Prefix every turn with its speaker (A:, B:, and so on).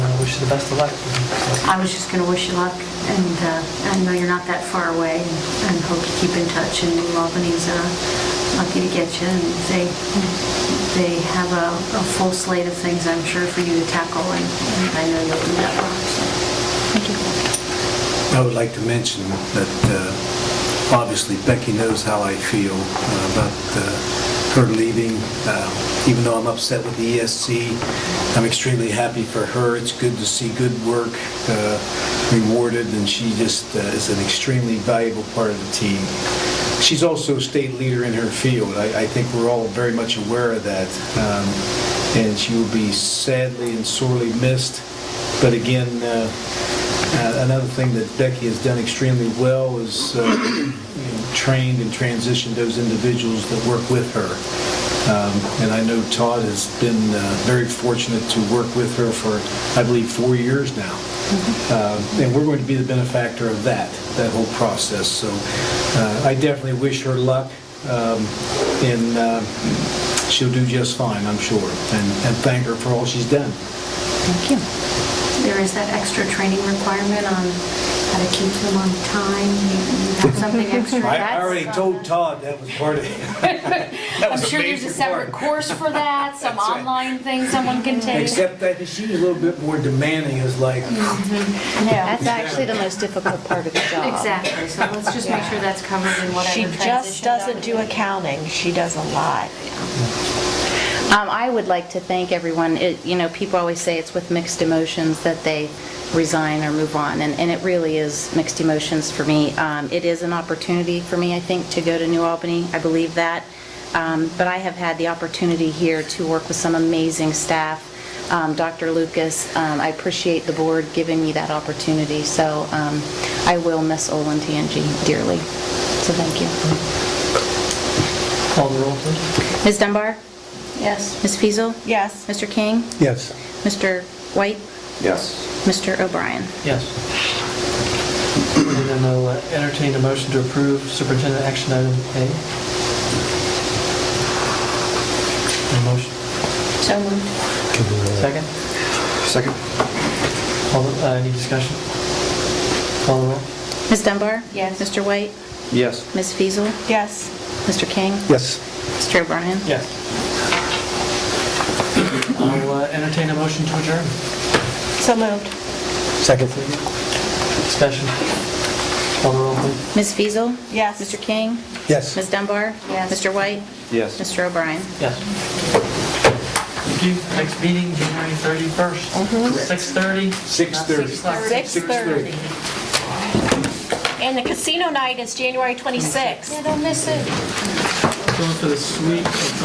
A: wish you the best of luck. So,
B: I was just going to wish you luck, and uh, I know you're not that far away, and hope you keep in touch, and New Albany's uh, lucky to get you, and they, they have a a full slate of things, I'm sure, for you to tackle, and and I know you'll do that well, so, thank you.
C: I would like to mention that uh, obviously Becky knows how I feel uh, about uh, her leaving. Uh, Even though I'm upset with the ESC, I'm extremely happy for her. It's good to see good work uh, rewarded, and she just uh, is an extremely valuable part of the team. She's also a state leader in her field. I I think we're all very much aware of that. Um, And she will be sadly and sorely missed, but again, uh, uh, Another thing that Becky has done extremely well is uh, you know, trained and transitioned those individuals that work with her. Um, And I know Todd has been uh, very fortunate to work with her for, I believe, four years now. Uh, And we're going to be the benefactor of that, that whole process. So uh, I definitely wish her luck, um, and uh, she'll do just fine, I'm sure. And and thank her for all she's done.
B: Thank you. There is that extra training requirement on how to keep them on time, you you have something extra.
C: I I already told Todd that was part of it.
D: I'm sure there's a separate course for that, some online thing someone can take.
C: Except that she was a little bit more demanding, is like,
E: That's actually the most difficult part of the job.
B: Exactly, so let's just make sure that's covered in whatever
F: She
B: transition.
F: just doesn't do
B: document.
F: accounting, she does a lot.
E: Um, I would like to thank everyone. It- You know, people always say it's with mixed emotions that they resign or move on, and and it really is mixed emotions for me. Um, It is an opportunity for me, I think, to go to New Albany. I believe that. Um, But I have had the opportunity here to work with some amazing staff. Um, Dr. Lucas, um, I appreciate the board giving me that opportunity, so um, I will miss Olin TNG dearly. So thank you.
A: Call the roll, please.
E: Ms. Dunbar?
B: Yes.
E: Ms. Feasel?
F: Yes.
E: Mr. King?
C: yes.
E: Mr. White?
G: Yes.
E: Mr. O'Brien?
A: Yes. And then I'll uh, entertain a motion to approve superintendent action item A. A motion,
B: So moved.
A: second?
G: Second?
A: All, the- uh, any discussion? Call the roll.
E: Ms. Dunbar?
B: Yes.
E: Mr. White?
G: Yes.
E: Ms. Feasel?
F: Yes.
E: Mr. King?
C: Yes.
E: Mr. O'Brien?
A: Yes. I'll uh, entertain a motion to adjourn.
F: So moved.
C: Second.
A: Discussion. Call the roll, please.
E: Ms. Feasel?
F: Yes.
E: Mr. King?
C: Yes.
E: Ms. Dunbar?
B: Yes.
E: Mr. White?
G: Yes.
E: Mr. O'Brien?
A: Yes. Thank you. Next meeting, January 31st, 6:30. Not
C: 6:30.
A: 6:30.
F: 6:30. And the casino night is January 26th.
A: Going for the sweet.